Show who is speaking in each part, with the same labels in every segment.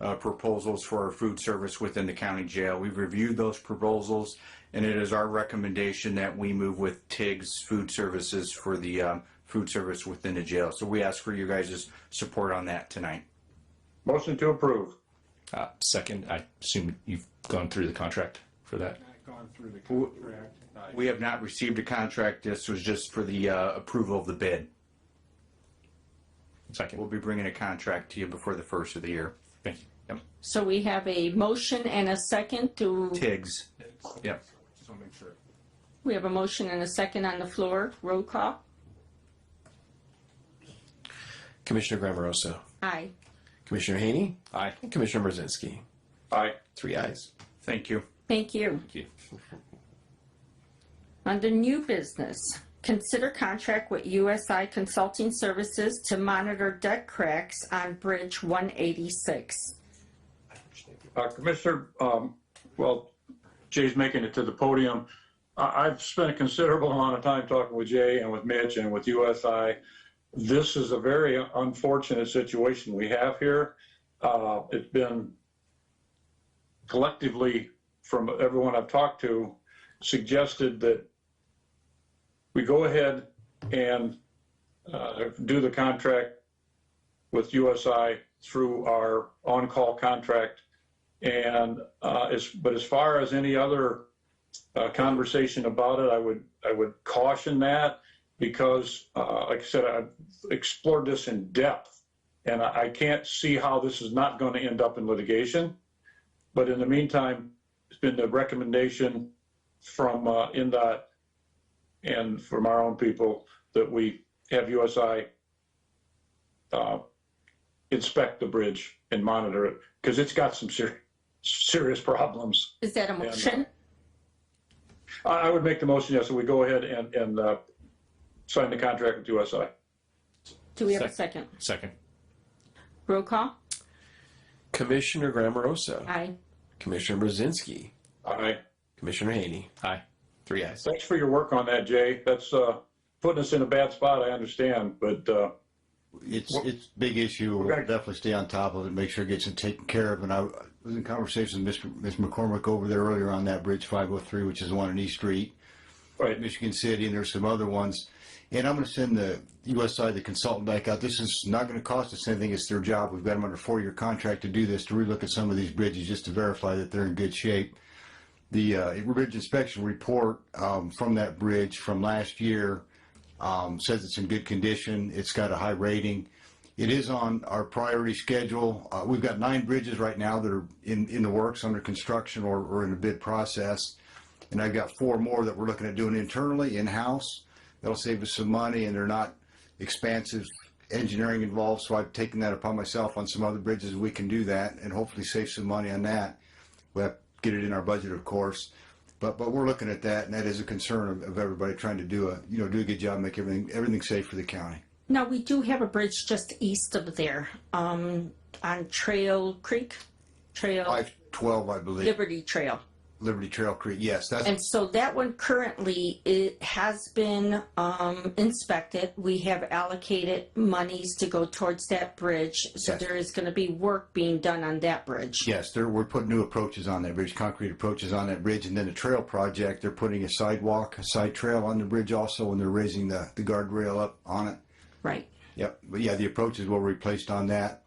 Speaker 1: uh, proposals for our food service within the county jail. We've reviewed those proposals, and it is our recommendation that we move with TIG's Food Services for the um, food service within the jail. So we ask for your guys' support on that tonight.
Speaker 2: Motion to approve.
Speaker 3: Uh, second, I assume you've gone through the contract for that.
Speaker 4: Gone through the contract.
Speaker 1: We have not received a contract. This was just for the uh, approval of the bid. We'll
Speaker 3: Second,
Speaker 1: be bringing a contract to you before the first of the year.
Speaker 3: thank you. Yep.
Speaker 5: So we have a motion and a second to,
Speaker 1: TIG's. Yep.
Speaker 4: Just want to make sure.
Speaker 5: we have a motion and a second on the floor. Roll call.
Speaker 6: Commissioner Grammarosa,
Speaker 5: Aye.
Speaker 6: Commissioner Haney,
Speaker 3: Aye.
Speaker 6: and Commissioner Merzinski.
Speaker 2: Aye.
Speaker 6: Three ayes.
Speaker 1: Thank you.
Speaker 5: Thank you.
Speaker 3: Thank you.
Speaker 5: Under new business, consider contract with USI Consulting Services to monitor deck cracks on Bridge 186.
Speaker 2: Uh, Commissioner, um, well, Jay's making it to the podium. I, I've spent a considerable amount of time talking with Jay and with Mitch and with USI. This is a very unfortunate situation we have here. Uh, it's been collectively from everyone I've talked to suggested that we go ahead and, uh, do the contract with USI through our on-call contract and uh, as, but as far as any other uh, conversation about it, I would I would caution that because, uh, like I said, I've explored this in depth, and I, I can't see how this is not going to end up in litigation. But in the meantime, it's been the recommendation from uh, NDOT and from our own people that we have USI uh, inspect the bridge and monitor it because it's got some serious serious problems.
Speaker 5: Is that a
Speaker 2: no.
Speaker 5: motion?
Speaker 2: I, I would make the motion, yes, that we go ahead and, and, uh, sign the contract with USI.
Speaker 5: Do we have a second?
Speaker 3: Second,
Speaker 5: Roll call.
Speaker 6: Commissioner Grammarosa,
Speaker 5: Aye.
Speaker 6: Commissioner Merzinski,
Speaker 2: All right.
Speaker 6: Commissioner Haney.
Speaker 3: aye.
Speaker 6: Three ayes.
Speaker 2: Thanks for your work on that, Jay. That's, uh, putting us in a bad spot, I understand, but, uh,
Speaker 7: It's, it's a big issue. We'll
Speaker 2: gotta-
Speaker 7: definitely stay on top of it, make sure it gets taken care of. And I was in conversation with Mr. Ms. McCormick over there earlier on that Bridge 503, which is the one on East Street,
Speaker 2: right,
Speaker 7: Michigan City, and there's some other ones. And I'm going to send the USI, the consultant back out. This is not going to cost us anything. It's their job. We've got them under a four-year contract to do this, to relook at some of these bridges just to verify that they're in good shape. The, uh, bridge inspection report, um, from that bridge from last year, um, says it's in good condition. It's got a high rating. It is on our priority schedule. Uh, we've got nine bridges right now that are in, in the works, under construction or, or in the bid process. And I've got four more that we're looking at doing internally, in-house. That'll save us some money and they're not expansive engineering involved. So I've taken that upon myself on some other bridges. We can do that and hopefully save some money on that. We have to get it in our budget, of course. But, but we're looking at that and that is a concern of, of everybody trying to do a, you know, do a good job, make everything, everything safe for the county.
Speaker 5: Now, we do have a bridge just east of there, um, on Trail Creek, Trail,
Speaker 7: Five twelve, I believe,
Speaker 5: Liberty Trail.
Speaker 7: Liberty Trail Creek. Yes, that's
Speaker 5: And so that one currently, it has been um, inspected. We have allocated monies to go towards that bridge. So
Speaker 7: Yes.
Speaker 5: there is going to be work being done on that bridge.
Speaker 7: Yes, they're, we're putting new approaches on that bridge, concrete approaches on that bridge, and then the trail project, they're putting a sidewalk, a side trail on the bridge also, and they're raising the, the guardrail up on it.
Speaker 5: Right.
Speaker 7: Yep, but yeah, the approaches were replaced on that,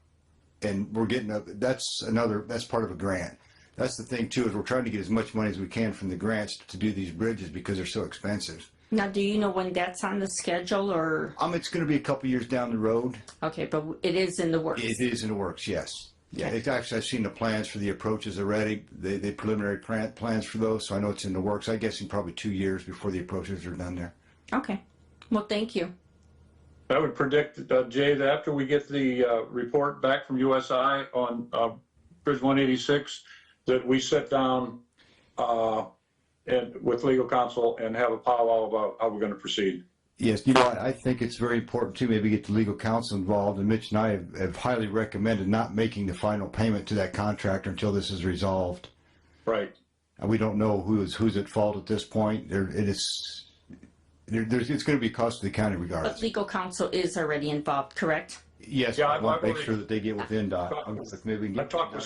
Speaker 7: and we're getting a, that's another, that's part of a grant. That's the thing too, is we're trying to get as much money as we can from the grants to do these bridges because they're so expensive.
Speaker 5: Now, do you know when that's on the schedule or,
Speaker 7: Um, it's gonna be a couple years down the road,
Speaker 5: okay, but it is in the works.
Speaker 7: It is in the works, yes. Yeah, it's actually, I've seen the plans for the approaches already, the, the preliminary plan, plans for those, so I know it's in the works. I guess in probably two years before the approaches are done there.
Speaker 5: Okay. Well, thank you.
Speaker 2: I would predict, uh, Jay, that after we get the, uh, report back from USI on, uh, Bridge one eighty-six, that we sit down, uh, and with legal counsel and have a powwow about how we're going to proceed.
Speaker 7: Yes, you know, I I think it's very important to maybe get the legal counsel involved, and Mitch and I have- have highly recommended not making the final payment to that contractor until this is resolved.
Speaker 2: Right.
Speaker 7: And we don't know who is, who's at fault at this point. There, it is, there, there's, it's gonna be a cost to the county
Speaker 5: But
Speaker 7: regardless.
Speaker 5: legal counsel is already involved, correct?
Speaker 7: Yes,
Speaker 2: Yeah,
Speaker 7: I
Speaker 2: I've-
Speaker 7: want
Speaker 2: I've
Speaker 7: to make
Speaker 2: already-
Speaker 7: sure that they get with NDOT.
Speaker 2: I've-
Speaker 7: I'm- maybe we can
Speaker 2: I've
Speaker 7: get
Speaker 2: talked with
Speaker 7: NDOT.